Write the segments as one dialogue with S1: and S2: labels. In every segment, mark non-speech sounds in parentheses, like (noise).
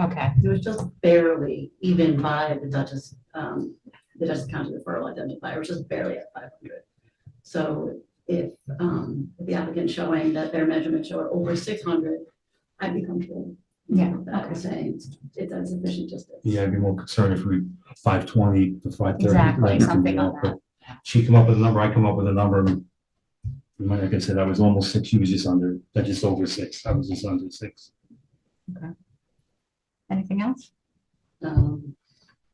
S1: Okay,
S2: It was just barely, even by the Dutchess, um, the Dutchess County referral identifier, which is barely at five hundred. So if, um, if the applicant showing that their measurements show over six hundred, I'd be comfortable.
S1: Yeah,
S2: with That was saying it's insufficient just. as-
S3: Yeah, I'd be more concerned if we, five twenty to five thirty.
S1: exactly, something on that.
S3: She come up with a number, I come up with a number. and we might- Like I said, I was almost six, she was just under, I just over six, I was just under six.
S1: Anything else?
S2: Um,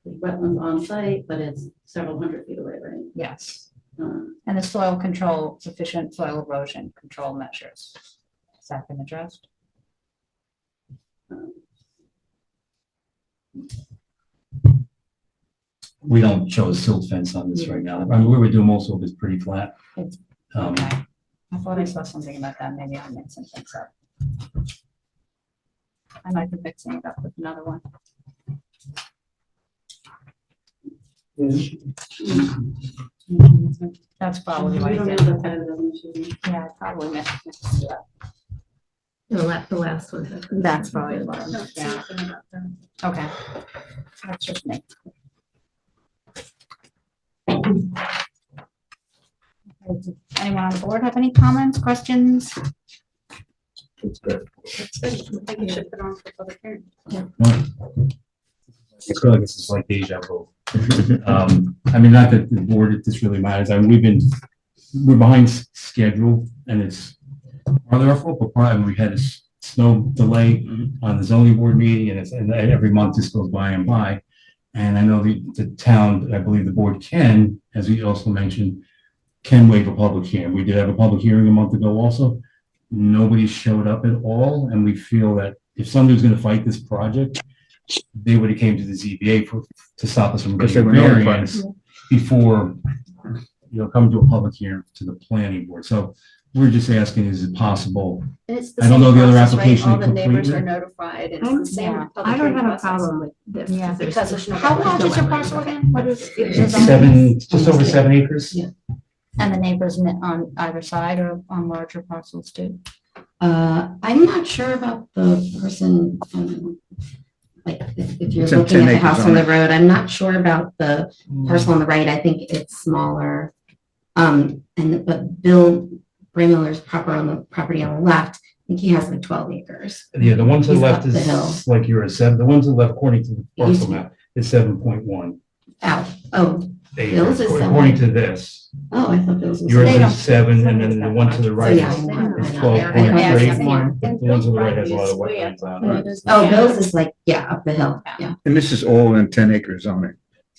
S2: the wetlands on site, but it's several hundred feet away, right?
S1: Yes.
S2: Um,
S1: And the soil control, sufficient soil erosion control measures. Has that been addressed?
S2: uh,
S3: We don't show a silt fence on this right now. I mean, we were doing most of it pretty flat.
S1: It's-
S3: Um,
S1: Okay. I thought I saw something about that, maybe I mixed some things up. I might be mixing it up with another one. That's probably
S2: We
S1: right.
S2: don't know
S1: yeah.
S2: the side of the machine.
S1: Yeah, I probably mixed mixed it up.
S4: The last, the last one.
S1: That's probably the one,
S2: No,
S1: yeah.
S2: something about that.
S1: Okay. That's just me. Anyone on the board have any comments, questions?
S2: I think you should put on for public hearing.
S3: I feel like this is like deja vu. Um, I mean, not that the board, if this really matters, I mean, we've been, we're behind s- schedule and it's part of our fault, but part, and we had a s- snow delay on the zoning board meeting and it's, and every month this goes by and by. And I know the, the town, I believe the board can, as we also mentioned, can waive a public hearing. We did have a public hearing a month ago also. Nobody showed up at all and we feel that if somebody's gonna fight this project, they would have came to the ZBA for, to stop us from
S5: Because they
S3: getting
S5: were notified.
S3: variance before, you know, come to a public hearing to the planning board. So we're just asking, is it possible
S6: And it's
S3: I don't know
S6: same
S3: the other
S6: process, right?
S3: application
S6: All the neighbors
S3: completely.
S6: are notified and
S4: I'm-
S6: it's the same
S1: yeah.
S6: public
S4: I don't
S6: hearing
S4: have a
S6: process.
S4: problem with this.
S1: Yeah.
S4: There's-
S6: Because there's no.
S1: How large is your parcel again? What is?
S3: It's seven, just over seven acres?
S1: And the neighbors ne- on either side or on larger parcels too?
S2: Uh, I'm not sure about the person, um, like, if if you're
S5: It's on
S2: looking
S5: 10
S2: at the
S5: acres
S2: house on
S5: only.
S2: the road, I'm not sure about the
S3: Hmm.
S2: parcel on the right, I think it's smaller. Um, and, but Bill Braymiller's proper on the property on the left, I think he has like twelve acres.
S3: Yeah, the one to the
S2: He's
S3: left
S2: up the hill.
S3: is like you're a seven, the one to the left according to the
S2: He's-
S3: parcel map is seven point one.
S2: Out, oh, Bill's is seven.
S3: According to this,
S2: oh, I thought Bill's was.
S3: yours
S1: They don't-
S3: is seven and then the one to the
S2: So,
S3: right
S2: yeah.
S3: is,
S2: I don't know.
S3: is twelve
S2: I
S3: point
S2: don't know.
S3: three.
S2: It's more.
S3: The one to the right has a lot of wetlands on it.
S2: Oh, Bill's is like, yeah, up the hill, yeah.
S5: And this is all in ten acre zoning.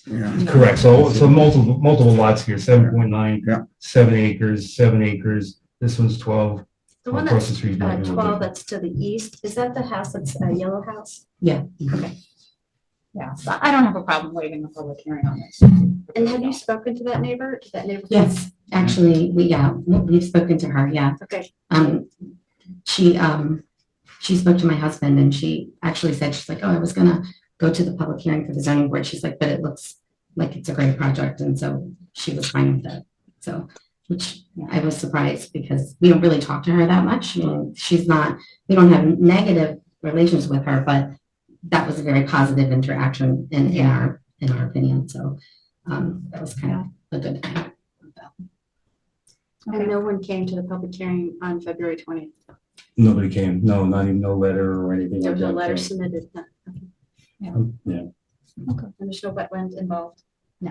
S5: Yeah,
S3: Correct, so, so multiple, multiple lots here, seven point nine,
S5: Yeah.
S3: seven acres, seven acres, this one's twelve.
S6: The one
S3: across
S6: that's
S3: the street is
S6: uh,
S3: maybe a little
S6: twelve,
S3: different.
S6: that's to the east, is that the house that's a yellow house?
S1: Yeah, so I don't have a problem waiving the public hearing on this.
S6: And have you spoken to that neighbor? Did that neighbor?
S2: Yes, actually, we, yeah, we've spoken to her, yeah.
S6: Okay,
S2: um, she, um, she spoke to my husband and she actually said, she's like, oh, I was gonna go to the public hearing for the zoning board. She's like, but it looks like it's a great project. And so she was fine with it. So, which I was surprised because we don't really talk to her that much. I mean, she's not, we don't have negative relations with her, but that was a very positive interaction in, in our, in our opinion. So, um, that was kind of a good thing.
S6: and no one came to the public hearing on February twentieth.
S3: Nobody came, no, not even no letter or anything like
S6: There was
S3: that.
S6: no letter submitted, no,
S3: Yeah,
S6: (laughs) and there's no wetlands involved.
S5: we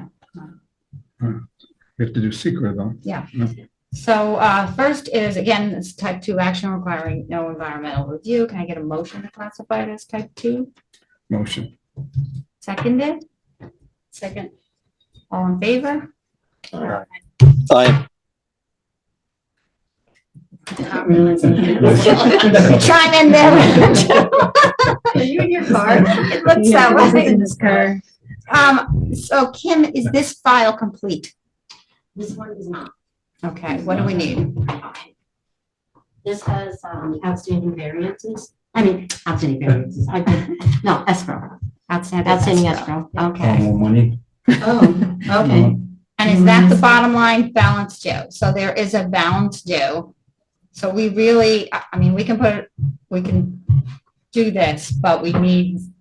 S5: have to do secret though.
S1: So uh, first is, again, it's type two action requiring no environmental review. Can I get a motion to classify it as type two?
S5: Motion.
S1: Seconded,
S6: Second,
S1: all in favor?
S2: Not (laughs) realizing-
S1: Chime in there.
S6: are you in your car?
S1: It looks that way. Um, so Kim, is this file complete?
S2: This one is not.
S1: Okay, what do we need?
S2: This has um, outstanding variances, I mean, outstanding variances, I did, no, escrow,
S1: Outstanding.
S2: outstanding escrow.
S3: Oh,
S1: Okay,
S3: more money?
S2: Oh, (laughs) okay.
S1: and is that the bottom line balance due? So there is a balance due. So we really, I I mean, we can put, we can do this, but we need